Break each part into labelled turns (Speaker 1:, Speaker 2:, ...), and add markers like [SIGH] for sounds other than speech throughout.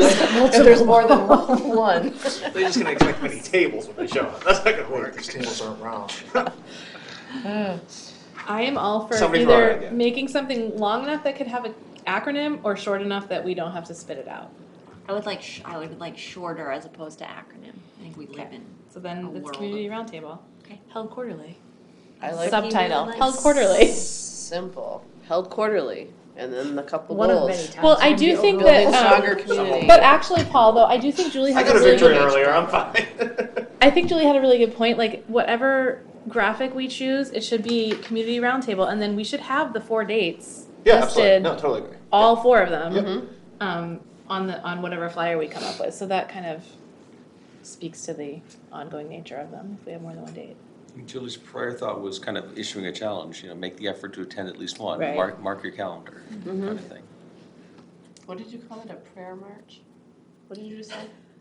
Speaker 1: If there's more than one.
Speaker 2: They're just gonna expect many tables when they show up. That's not gonna work.
Speaker 3: These tables aren't round.
Speaker 4: I am all for
Speaker 2: Somebody throw it out,
Speaker 4: either
Speaker 2: yeah.
Speaker 4: making something long enough that could have an acronym or short enough that we don't have to spit it out.
Speaker 5: I would like, sh- I would like shorter as opposed to acronym. I think we live in.
Speaker 4: [LAUGHS] So then
Speaker 5: A
Speaker 4: it's
Speaker 5: world
Speaker 4: community roundtable.
Speaker 5: Okay.
Speaker 4: Held quarterly.
Speaker 1: I
Speaker 5: Like-
Speaker 1: like subtitle.
Speaker 4: Held quarterly.
Speaker 1: Simple. Held quarterly, and then the couple
Speaker 6: One of
Speaker 1: goals.
Speaker 6: many times.
Speaker 4: Well, I
Speaker 6: I'm
Speaker 4: do
Speaker 6: the
Speaker 4: think
Speaker 6: only
Speaker 4: that,
Speaker 1: Building
Speaker 4: um,
Speaker 1: stronger community.
Speaker 4: But actually, Paul, though, I do think Julie
Speaker 2: I
Speaker 4: has
Speaker 2: got
Speaker 4: a
Speaker 2: a
Speaker 4: really
Speaker 2: victory
Speaker 4: good,
Speaker 2: earlier. I'm fine. [LAUGHS]
Speaker 4: I think Julie had a really good point. Like whatever graphic we choose, it should be community roundtable, and then we should have the four dates
Speaker 2: yeah, absolutely.
Speaker 4: listed,
Speaker 2: No, totally agree.
Speaker 4: all four of them,
Speaker 1: Mhm.
Speaker 4: um, on the on whatever flyer we come up with. So that kind of speaks to the ongoing nature of them if we have more than one date.
Speaker 7: Julie's prior thought was kind of issuing a challenge, you know, make the effort to attend at least one,
Speaker 4: Right.
Speaker 7: mark, mark your calendar, kind
Speaker 1: Mm-hmm.
Speaker 7: of thing.
Speaker 1: What did you call it? A prayer march? What did you just say?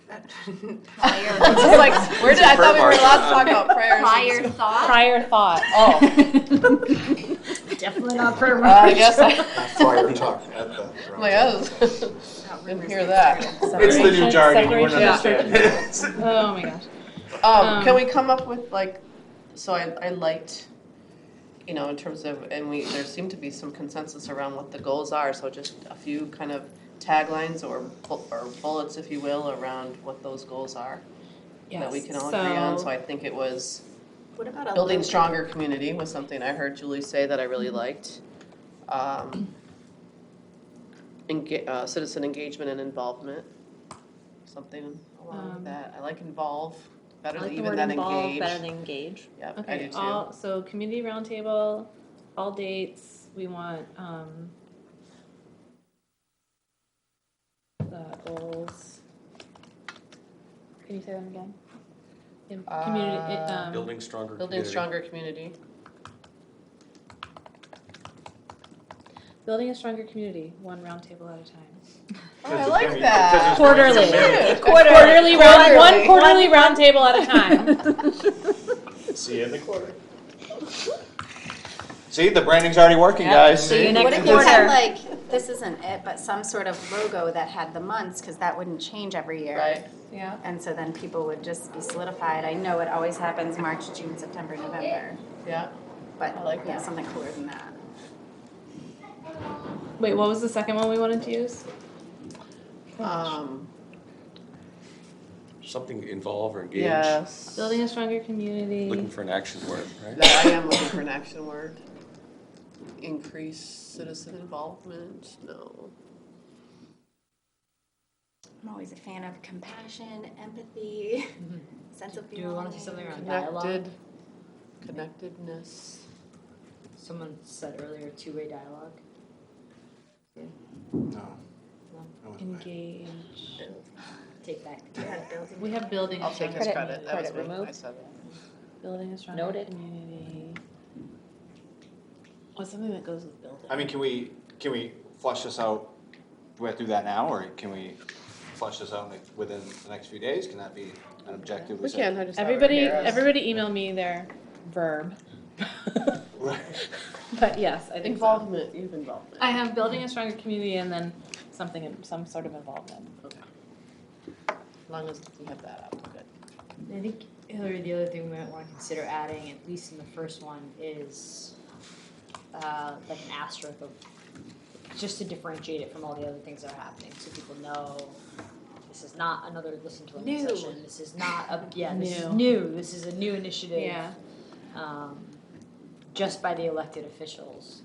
Speaker 1: [LAUGHS]
Speaker 5: Prior,
Speaker 1: like, where did I thought we were
Speaker 7: march.
Speaker 1: allowed to talk about prayers?
Speaker 5: prior thought.
Speaker 4: Prior thought.
Speaker 1: Oh,
Speaker 6: Definitely not prayer
Speaker 1: uh, I guess I.
Speaker 3: Not Fire talk at the.
Speaker 1: [LAUGHS]
Speaker 3: round
Speaker 1: My
Speaker 3: table.
Speaker 1: others.
Speaker 5: Not
Speaker 1: [LAUGHS] [LAUGHS] Didn't
Speaker 5: rumors
Speaker 1: hear
Speaker 5: and
Speaker 1: that.
Speaker 5: material.
Speaker 2: It's the new
Speaker 4: Separation-
Speaker 2: jargon. You wouldn't
Speaker 4: separation of church and
Speaker 2: understand.
Speaker 4: state. Oh my gosh.
Speaker 1: Um,
Speaker 4: Um,
Speaker 1: can we come up with like, so I, I liked, you know, in terms of, and we, there seemed to be some consensus around what the goals are, so just a few kind of taglines or, bu- or bullets, if you will, around what those goals are that we
Speaker 4: Yes,
Speaker 1: can all agree on,
Speaker 4: so-
Speaker 1: so I think it was
Speaker 6: What about a
Speaker 1: building
Speaker 6: local-
Speaker 1: stronger community was something I heard Julie say that I really liked. Um, enga- uh, citizen engagement and involvement, something along
Speaker 4: Um,
Speaker 1: with that, I like involve better
Speaker 5: I like the
Speaker 1: even
Speaker 5: word
Speaker 1: than engage.
Speaker 5: involve better than engage.
Speaker 1: Yep, I do
Speaker 4: Okay,
Speaker 1: too.
Speaker 4: all, so community roundtable, all dates, we want, um, the goals. Can you say them again? In- Community, it,
Speaker 1: Uh,
Speaker 4: um,
Speaker 7: Building stronger
Speaker 1: Building
Speaker 7: community.
Speaker 1: stronger community.
Speaker 4: building a stronger community, one roundtable at a time.
Speaker 1: Oh,
Speaker 2: Because
Speaker 1: I
Speaker 2: it's
Speaker 1: like
Speaker 2: gonna be-
Speaker 1: that.
Speaker 2: because it's gonna be
Speaker 4: Quarterly.
Speaker 2: a minute.
Speaker 4: Quarterly round, one
Speaker 1: Quarterly.
Speaker 4: quarterly roundtable at a time.
Speaker 2: See you in the quarter. See, the branding's already working, guys.
Speaker 5: See you next
Speaker 6: What if you
Speaker 5: quarter.
Speaker 6: had like, this isn't it, but some sort of logo that had the months, because that wouldn't change every year.
Speaker 1: Right.
Speaker 4: Yeah.
Speaker 6: And so then people would just be solidified. I know it always happens March, June, September, November,
Speaker 1: Yeah.
Speaker 6: but
Speaker 1: I like
Speaker 6: yeah,
Speaker 1: that.
Speaker 6: something cooler than that.
Speaker 4: Wait, what was the second one we wanted to use?
Speaker 1: Um,
Speaker 7: Something involve or engage.
Speaker 1: yes.
Speaker 4: Building a stronger community.
Speaker 7: Looking for an action word, right?
Speaker 1: That I am looking for an action word. Increase citizen involvement. No.
Speaker 6: I'm always a fan of compassion, empathy, sense of
Speaker 5: Do we wanna see something
Speaker 6: belonging.
Speaker 5: around dialogue?
Speaker 1: Connected. Connectedness.
Speaker 8: Someone said earlier, two-way dialogue.
Speaker 3: No. I wouldn't mind.
Speaker 4: Engage.
Speaker 8: Take back.
Speaker 4: We have building. a
Speaker 1: I'll take
Speaker 4: stronger
Speaker 1: his credit.
Speaker 4: community.
Speaker 1: That was
Speaker 8: Credit
Speaker 1: me. I
Speaker 8: removed.
Speaker 1: said it.
Speaker 4: Building a stronger
Speaker 8: Noted.
Speaker 4: community. What's something that goes with building?
Speaker 2: I mean, can we, can we flush this out? Do we have to do that now, or can we flush this out like within the next few days? Can that be an objective?
Speaker 1: We can. I just
Speaker 4: everybody,
Speaker 1: thought it was-
Speaker 4: everybody, email me their verb. [LAUGHS] but yes, I think so.
Speaker 1: Involvement. You've involvement.
Speaker 4: I have building a stronger community and then something, some sort of involvement.
Speaker 1: Okay. As long as you have that up, good.
Speaker 8: I think, Hillary, the other thing we might want to consider adding, at least in the first one, is uh, like an asterisk of, just to differentiate it from all the other things that are happening, so people know this is not another listen to
Speaker 4: New.
Speaker 8: a session, this is not, a yeah, this is
Speaker 4: New.
Speaker 8: new, this is a new initiative. um, Just by the elected officials.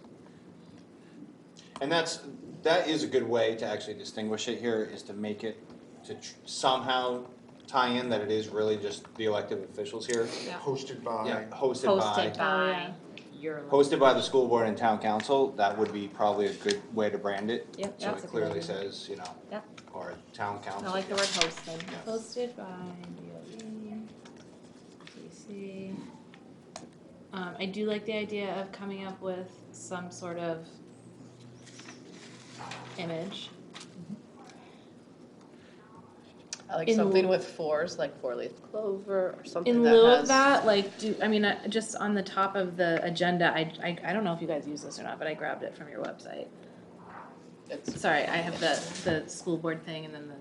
Speaker 2: And that's, that is a good way to actually distinguish it here, is to make it, to tr- somehow tie in that it is really just the elected officials here.
Speaker 3: Hosted
Speaker 2: Yeah,
Speaker 3: by.
Speaker 2: hosted by,
Speaker 8: Hosted
Speaker 4: Oh,
Speaker 8: by
Speaker 4: yeah.
Speaker 8: your elected.
Speaker 2: hosted by the school board and town council, that would be probably a good way to brand it.
Speaker 8: Yep,
Speaker 2: So it
Speaker 8: that's a good
Speaker 2: clearly
Speaker 8: idea.
Speaker 2: says, you know,
Speaker 8: Yep.
Speaker 2: or town
Speaker 4: I
Speaker 2: council.
Speaker 4: like the word hosted.
Speaker 2: Yeah.
Speaker 4: Hosted Oh, by DOE, DC. E. Um, I do like the idea of coming up with some sort of image.
Speaker 1: I like
Speaker 4: In-
Speaker 1: something with fours, like four-leaf clover or something
Speaker 4: In
Speaker 1: that
Speaker 4: lieu of
Speaker 1: has-
Speaker 4: that, like, do, I mean, uh, just on the top of the agenda, I, I, I don't know if you guys use this or not, but I grabbed it from your website.
Speaker 1: It's
Speaker 4: Sorry, I have the, the school board thing and then the